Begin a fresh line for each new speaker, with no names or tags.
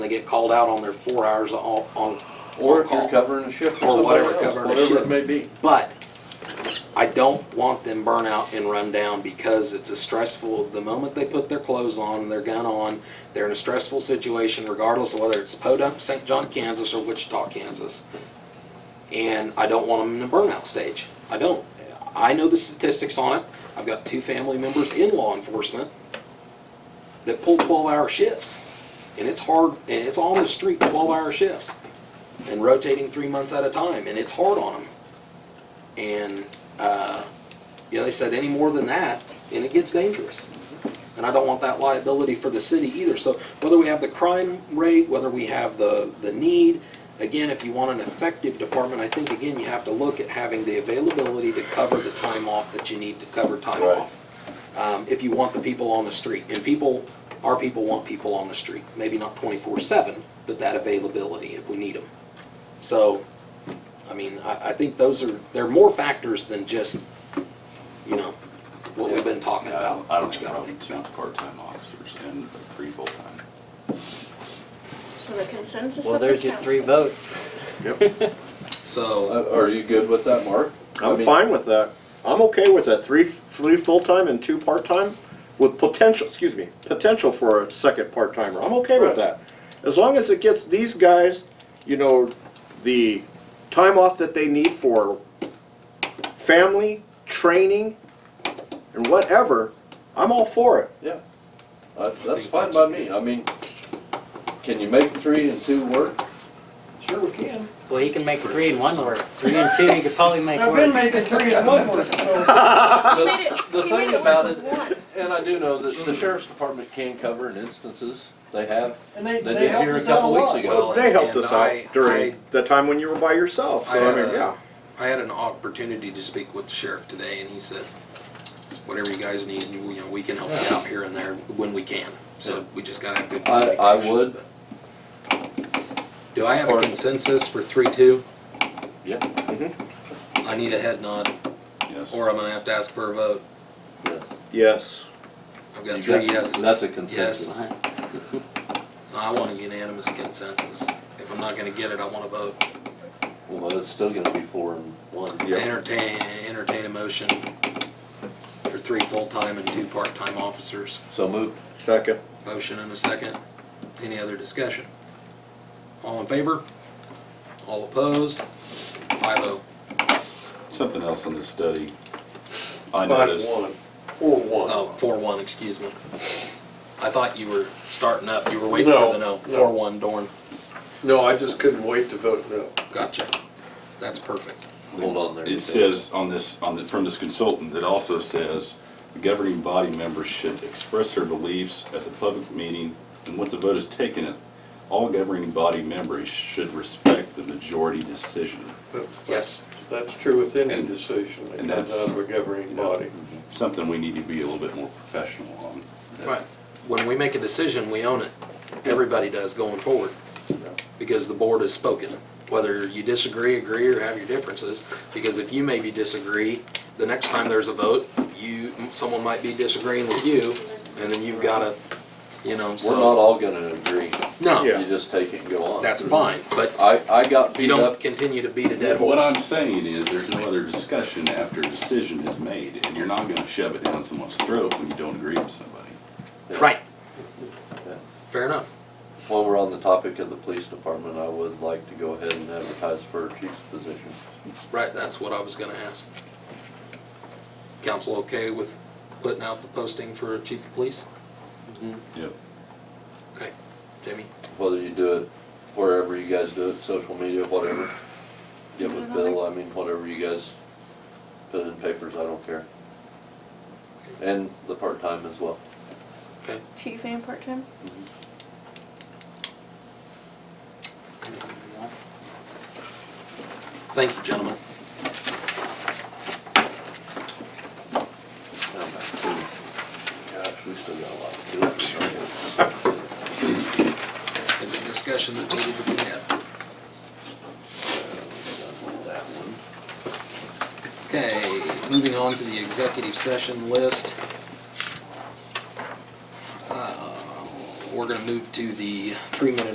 They get called out on their four hours on, on.
Or if
on
you're
call.
covering a shift for
Or
somebody
whatever,
else,
covering a
whatever
shift.
it may be.
But I don't want them burn out and run down because it's a stressful, the moment they put their clothes on, their gun on, they're in a stressful situation regardless of whether it's Podunk, St. John, Kansas or Wichita, Kansas. And I don't want them in a burnout stage. I don't. I know the statistics on it. I've got two family members in law enforcement that pull twelve-hour shifts. And it's hard, and it's on the street, twelve-hour shifts and rotating three months at a time, and it's hard on them. And, uh, you know, they said any more than that, and it gets dangerous. And I don't want that liability for the city either. So whether we have the crime rate, whether we have the, the need, again, if you want an effective department, I think, again, you have to look at having the availability to cover the time off that you need to cover time
Right.
off. Um, if you want the people on the street, and people, our people want people on the street, maybe not twenty-four seven, but that availability if we need them. So, I mean, I, I think those are, there are more factors than just, you know, what we've been talking
Yeah, I
about.
don't- I don't
what
have
you
a
gotta
problem
think
with two
about.
part-time officers and three full-time.
So the consensus of the council.
Well, there's your three votes.
So,
Uh, Are you good with that, Mark? I
I'm
mean,
fine with that. I'm okay with that. Three, three full-time and two part-time with potential, excuse me, potential for a second part-timer. I'm okay with that. As long as it gets these guys, you know, the time off that they need for family, training, and whatever, I'm all for it.
Yeah, Uh, that's fine by me. I mean, can you make three and two work? Sure we can.
Well, he can make three and one work. Three and two, he could probably make
I've been
work.
making three and one work, so.
He made it-
The
he made
thing
it work
about
with
it,
one.
and I do know that the sheriff's department can cover in instances, they have,
And they,
they
they
did
helped
here a
us out a
couple weeks
lot.
ago.
Well,
They helped
and
us
I-
out
I-
during the time when you were by yourself, so I
I,
mean,
uh,
yeah.
I had an opportunity to speak with the sheriff today, and he said, whatever you guys need, you know, we can help you out here and there when we can. So we just gotta have good
I, I
communication.
would,
Do I have a consensus for three, two? Mm-hmm.
yeah,
I need a head nod,
Yes.
or I'm gonna have to ask for a vote.
yes.
Yes.
I've got
You
three
got-
yeses.
That's a consensus.
Yes. I want a unanimous consensus. If I'm not gonna get it, I wanna vote.
Well, it's still gonna be four and one.
Entertain, entertain a motion for three full-time and two part-time officers.
So moved.
Second.
Motion and a second. Any other discussion? All in favor? All opposed? Five oh.
Something else on this study. I
Five,
noticed,
one, or one.
Oh, four one, excuse me. I thought you were starting up. You were waiting
No,
for the no.
no.
Four one, Dorn.
No, I just couldn't wait to vote no.
Gotcha. That's perfect.
Hold on there.
it says on this, on the, from this consultant, it also says, "The governing body members should express their beliefs at the public meeting, and once a vote is taken, all governing body members should respect the majority decision."
Yes.
That's true with any
And-
decision that
and
comes
that's-
out of a governing
You know,
body.
Something we need to be a little bit more professional on.
Right. When we make a decision, we own it. Everybody does going forward. Because the board has spoken, whether you disagree, agree, or have your differences. Because if you maybe disagree, the next time there's a vote, you, someone might be disagreeing with you, and then you've gotta, you know,
We're not
so.
all gonna agree.
No,
Yeah.
You just take it and go on.
that's fine, but
I, I got
you
beat
don't
up,
continue to beat a dead
What I'm
horse.
saying is, there's no other discussion after a decision is made, and you're not gonna shove it down someone's throat when you don't agree with somebody.
Right.
Yeah.
Fair enough.
while we're on the topic of the police department, I would like to go ahead and advertise for a chief's position.
Right, that's what I was gonna ask. Council okay with putting out the posting for chief of police?
Yep.
Okay, Jamie?
Whether you do it wherever you guys do it, social media, whatever. Get with Bill, I mean, whatever you guys put in papers, I don't care. And the part-time as well.
Okay.
Chief and part-time?
Thank you, gentlemen.
Gosh, we still got a lot to do.
It's a discussion that needed to be had.
That one.
Okay, moving on to the executive session list. Uh, We're gonna move to the three-minute